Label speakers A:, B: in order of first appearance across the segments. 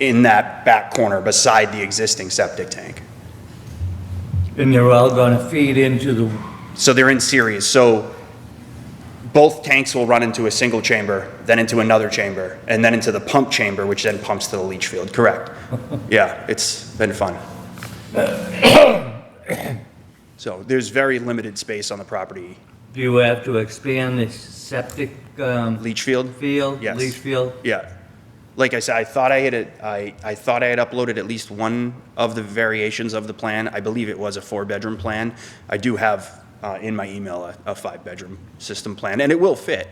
A: in that back corner beside the existing septic tank.
B: And they're all gonna feed into the,
A: So they're in series, so both tanks will run into a single chamber, then into another chamber, and then into the pump chamber, which then pumps to the leach field, correct? Yeah, it's been fun. So there's very limited space on the property.
B: do you have to expand the septic, um,
A: Leach field?
B: field?
A: Yes.
B: Leach field?
A: Yeah. Like I said, I thought I had, it- I, I thought I had uploaded at least one of the variations of the plan. I believe it was a four-bedroom plan. I do have uh, in my email a, a five-bedroom system plan, and it will fit.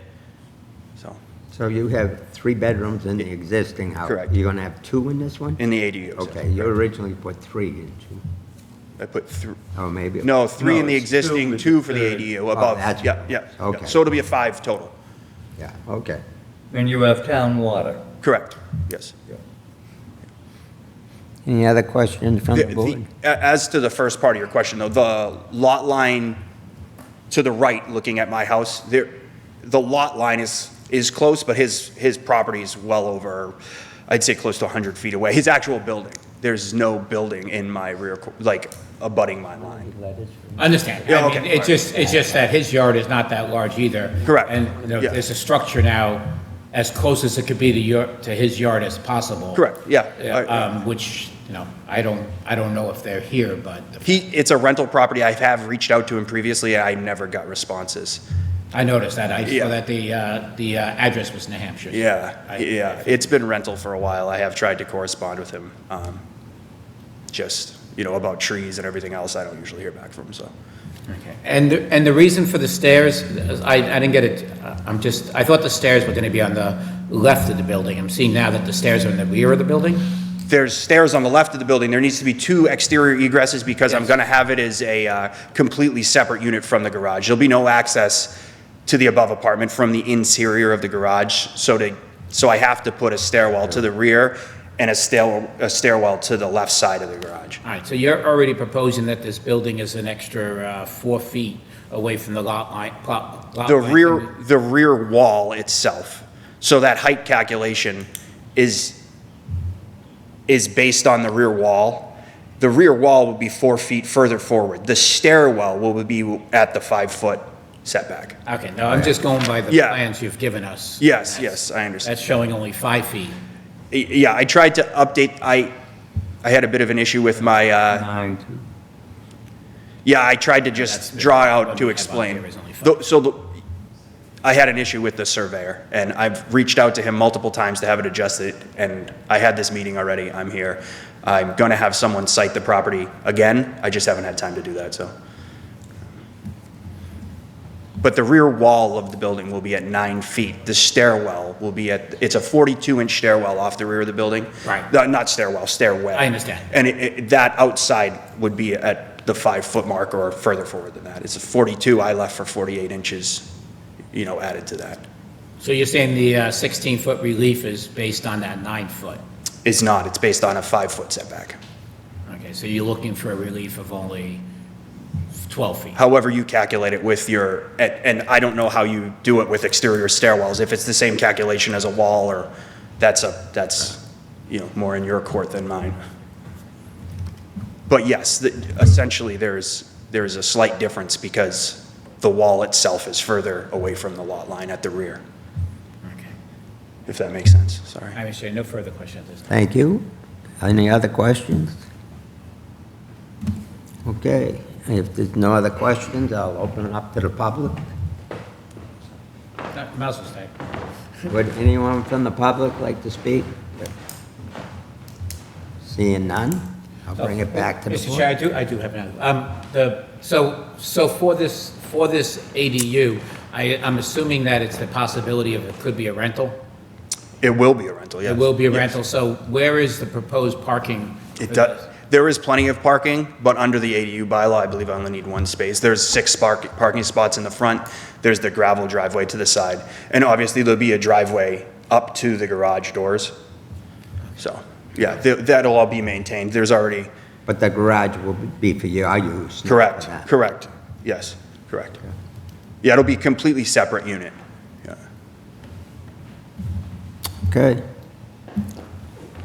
A: So,
C: So you have three bedrooms in the existing house?
A: Correct.
C: You're gonna have two in this one?
A: in the ADU. so
C: Okay, you originally put three, didn't you?
A: I put thr-
C: Oh, maybe?
A: no, three in the
B: No, it's two
A: existing,
B: with the
A: two for the
B: third. Oh,
A: ADU above.
C: that's-
A: Yeah, yeah, yeah.
C: okay.
A: So it'll be a five total.
C: Yeah, okay.
B: And you have town water?
A: Correct, yes.
C: Any other questions from
A: The-
C: the
A: the-
C: board?
A: a- As to the first part of your question, though, the lot line to the right, looking at my house, there, the lot line is, is close, but his, his property is well over, I'd say close to 100 feet away, his actual building. There's no building in my rear, cor- like, abutting my line.
D: I Understand.
A: Yeah,
D: I mean,
A: okay.
D: It's just, it's just that his yard is not that large either.
A: Correct.
D: And you know,
A: Yeah.
D: there's a structure now as close as it could be to your, to his yard as possible.
A: Correct, yeah.
D: Yeah, Um, which, you know, I don't, I don't know if they're here, but
A: He, it's a rental property, I have reached out to him previously, I never got responses.
D: I noticed that. I
A: Yeah.
D: saw that the, uh, the uh, address was New Hampshire.
A: Yeah,
D: I-
A: yeah, it's been rental for a while, I have tried to correspond with him, um, just, you know, about trees and everything else, I don't usually hear back from him, so.
D: Okay. And, the- and the reason for the stairs, I, I didn't get it, uh, I'm just, I thought the stairs were gonna be on the left of the building. I'm seeing now that the stairs are in the rear of the building?
A: There's stairs on the left of the building, there needs to be two exterior egresses because I'm gonna have it as a uh, completely separate unit from the garage. There'll be no access to the above apartment from the interior of the garage, so to, so I have to put a stairwell to the rear and a stairwell, a stairwell to the left side of the garage.
D: All right, so you're already proposing that this building is an extra uh, four feet away from the lot line, plot. lot
A: The
D: line.
A: rear, the rear wall itself. So that height calculation is, is based on the rear wall. The rear wall would be four feet further forward. The stairwell will be at the five-foot setback.
D: Okay, no, I'm just going by the
A: Yeah.
D: plans you've given us.
A: Yes, yes, I understand.
D: That's showing only five feet.
A: Y- Yeah, I tried to update, I, I had a bit of an issue with my, uh,
C: Nine, two.
A: yeah, I tried to
D: That's
A: just
D: the-
A: draw out
D: what
A: to
D: we have on
A: explain.
D: here is only five.
A: Though- So the, I had an issue with the surveyor, and I've reached out to him multiple times to have it adjusted, and I had this meeting already, I'm here. I'm gonna have someone cite the property again, I just haven't had time to do that, so. But the rear wall of the building will be at nine feet, the stairwell will be at, it's a 42-inch stairwell off the rear of the building.
D: Right.
A: No, Not stairwell, stairway.
D: I understand.
A: And it- it, that outside would be at the five-foot mark or further forward than that. It's a 42, I left for 48 inches, you know, added to that.
D: So you're saying the 16-foot relief is based on that nine-foot?
A: It's not, it's based on a five-foot setback.
D: Okay, so you're looking for a relief of only 12 feet?
A: However you calculate it with your, and, and I don't know how you do it with exterior stairwells, if it's the same calculation as a wall or, that's a, that's, you know, more in your court than mine. But yes, the- essentially, there's, there's a slight difference because the wall itself is further away from the lot line at the rear.
D: Okay.
A: if that makes sense, sorry.
D: I understand, no further questions at this time.
C: Thank you. Any other questions? Okay, if there's no other questions, I'll open it up to the public.
D: No, Mouse will stay.
C: Would anyone from the public like to speak? Seeing none, I'll bring it back to the
D: Mr. Chair, I
C: board.
D: do, I do have another. Um, the, so, so for this, for this ADU, I, I'm assuming that it's the possibility of it could be a rental?
A: It will be a rental, yes.
D: It will be a
A: Yes.
D: rental, so where is the proposed parking?
A: It
D: for
A: does,
D: this?
A: there is plenty of parking, but under the ADU bylaw, I believe I only need one space. There's six park, parking spots in the front, there's the gravel driveway to the side, and obviously there'll be a driveway up to the garage doors. So, yeah, th- that'll all be maintained, there's already,
C: But the garage will be for your use. not for
A: correct,
C: that.
A: correct, yes, correct. Yeah, it'll be a completely separate unit, yeah.
C: Okay.